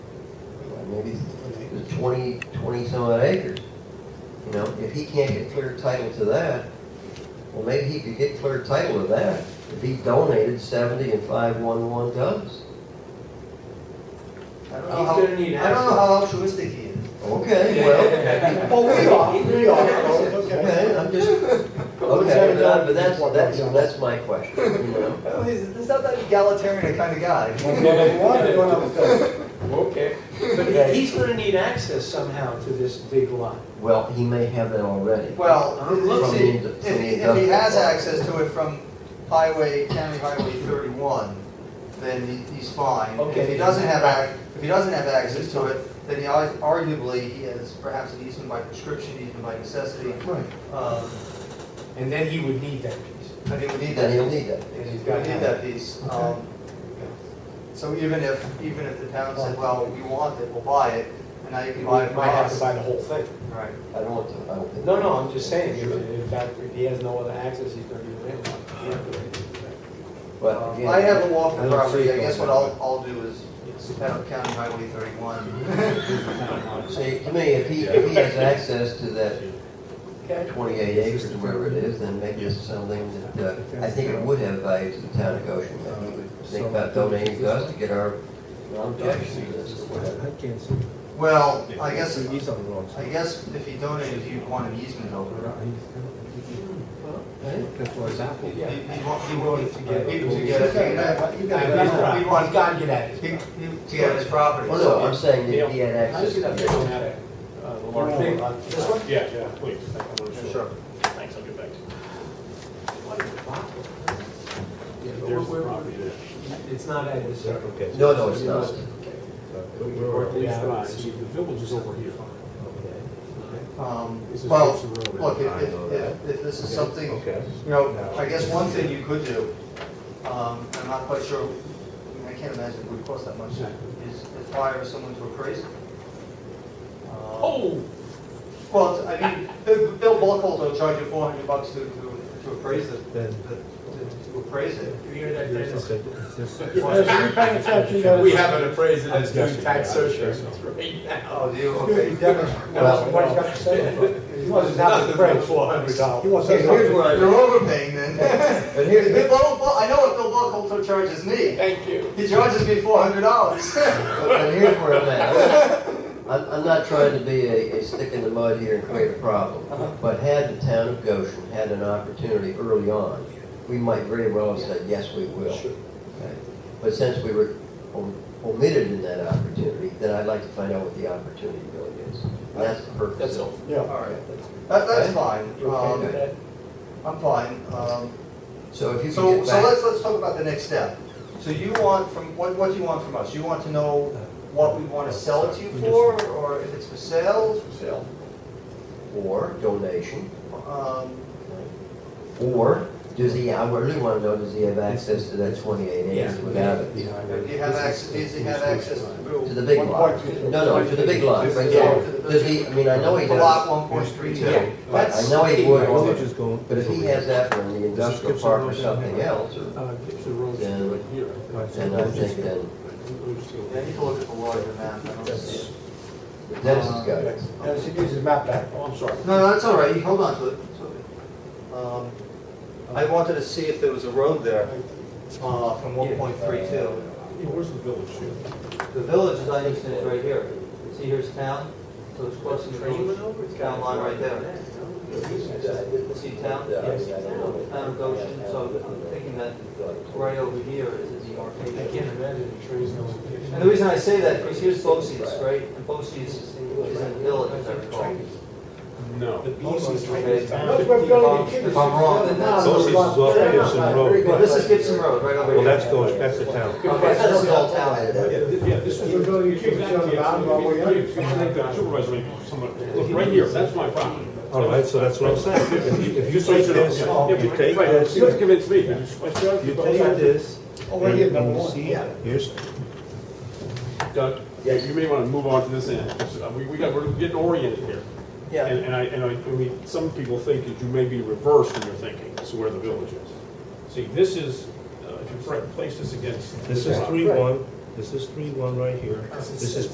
know, it's twenty, twenty some odd acres. You know, if he can't get clear title to that, well, maybe he could get clear title to that if he donated seventy and five one one tons. I don't know He's how, gonna need I don't know access. how altruistic he is. Okay, well, Well, Oh, we are, we are, okay. okay, I'm just, okay, but I- but that's, that's, that's my question, you know? Oh, he's, he's not that egalitarian kind of guy. Okay, but he- he's gonna need access somehow to this big lot. Well, he may have that already. Well, I'm let's see, looking. if he, if he has access to it from highway, county highway thirty-one, then he- he's fine. If Okay. he doesn't have ac, if he doesn't have access to it, then he ar- arguably, he has perhaps an easement by prescription, easement by necessity. Right. Um, And then he would need that piece. I think we need Then that, he'll we need that. And he's got need that piece. Um, So even if, even if the town said, well, we want it, we'll buy it, and now you He can buy it from might might have to us. buy the whole thing. Right. I don't want to, I don't think. No, no, I'm just saying, if, in fact, if he has no other access, he's gonna be landlocked. He can't do anything. Well, again, I have a walk I in don't see property, it I guess going what that I'll, I'll do is head up County Highway thirty-one. See, to me, if he, if he has access to that Okay. twenty-eight acres, wherever it is, then maybe it's something that, uh, I think it would have value to the town of Goshen. Maybe we would think about donating to us to get our objection to this or whatever. can't see. Well, I guess, He's on the wrong side. I guess if he donated, he'd want an easement over it. That's why it's Apple. Yeah. He'd- He'd want, he'd want to get, he'd want to get, it- He's got- he's gotta get at he'd- it. he'd- to get his property. Well, no, I'm saying that if he had How does access he to not that. get at it? Uh, the large Big- lot. this one? Yeah, yeah, please. I'm not Yeah, sure. Sure. Thanks, I'll get back to you. Yeah, but There's the we're- property there. It's not at this. Okay. No, no, it's not. Or at least drive. See, the village is over here. Um, This is Well, Gibson Road. look, if, I know if- if, if this is something, you know, I guess one thing you could do, um, I'm not quite sure, I mean, I can't imagine it would cost that much, is is hire someone to appraise it. Um, Oh, Well, I mean, Bill Bill Buckhold will charge you four hundred bucks to, to, to appraise it, to, to appraise it. You hear that, Dennis? We have an appraiser that's doing tax searches. Right now. Oh, do you, okay. He wasn't having a break. Four hundred He dollars. wasn't- You're overpaying then. But here's, Bill Buckhold, I know what Bill Buckhold will charges me. Thank you. He charges me four hundred dollars. But- But here's where I'm at. I'm, I'm not trying to be a, a stick in the mud here and create a problem, but had the town of Goshen had an opportunity early on, we might very well have said, yes, we will. Okay? But since we were om- omitted in that opportunity, then I'd like to find out what the opportunity really is. And that's the purpose. That's of all. Yeah. Alright, that, that's fine, You okay with um, that? I'm fine, um, it. So if you can so, get so back, let's, let's talk about the next step. So you want from, what, what do you want from us? You want to know what we wanna sell it to you for, or if it's for sale? For sale. or donation, Um, or does he, I really want to know, does he have access to that twenty-eight acres without it? do you have access, does he have access To to the big lot? No, no, to the big lot, right there. Does he, I mean, I know he the does. lot one point three two? Yeah. I That's, know he Village would, is going. but if he has that for the industrial park or something else, or- Uh, Gibson Road's Then- right here. I think. then I think then, I need to look at the larger map, I don't see it. Dennis has got it. Dennis, you use his map back. Oh, I'm sorry. No, no, that's all right, You hold on to it. It's okay. Um, I wanted to see if there was a road there uh, from 1.32. yeah, where's the village here? The village, as I understand, is right here. See, here's town, so it's crossing the village, town line right there. See town? Town of Goshen, so I'm thinking that right over here is the I arcade. can't imagine the trees going. And the reason I say that, because here's Bosse's, right? And Bosse's is in the village, as I recall. No. That's where Bill and the If I'm wrong, then that's... Bosse's is off Gibson Road. Well, this is Gibson Road, right over here. going, that's the town. Okay, so this is all town. Yeah, th- yeah, this is. You're gonna keep it on the bottom, all the way up. Supervisor, someone- look, right here, that's my property. All right, so that's what I'm saying. If you- If you take this, Yeah, you but- take right, this, You have you to convince me. You take this, and you see, here's, Doug, yeah, you may want to move on to this end. Uh, We, we got, we're getting oriented here. Yeah. And, and I, and I, I mean, some people think that you may be reversed in your thinking, this is where the village is. See, this is, uh, if you pla- place this against. this is three one, this is three one right here, this is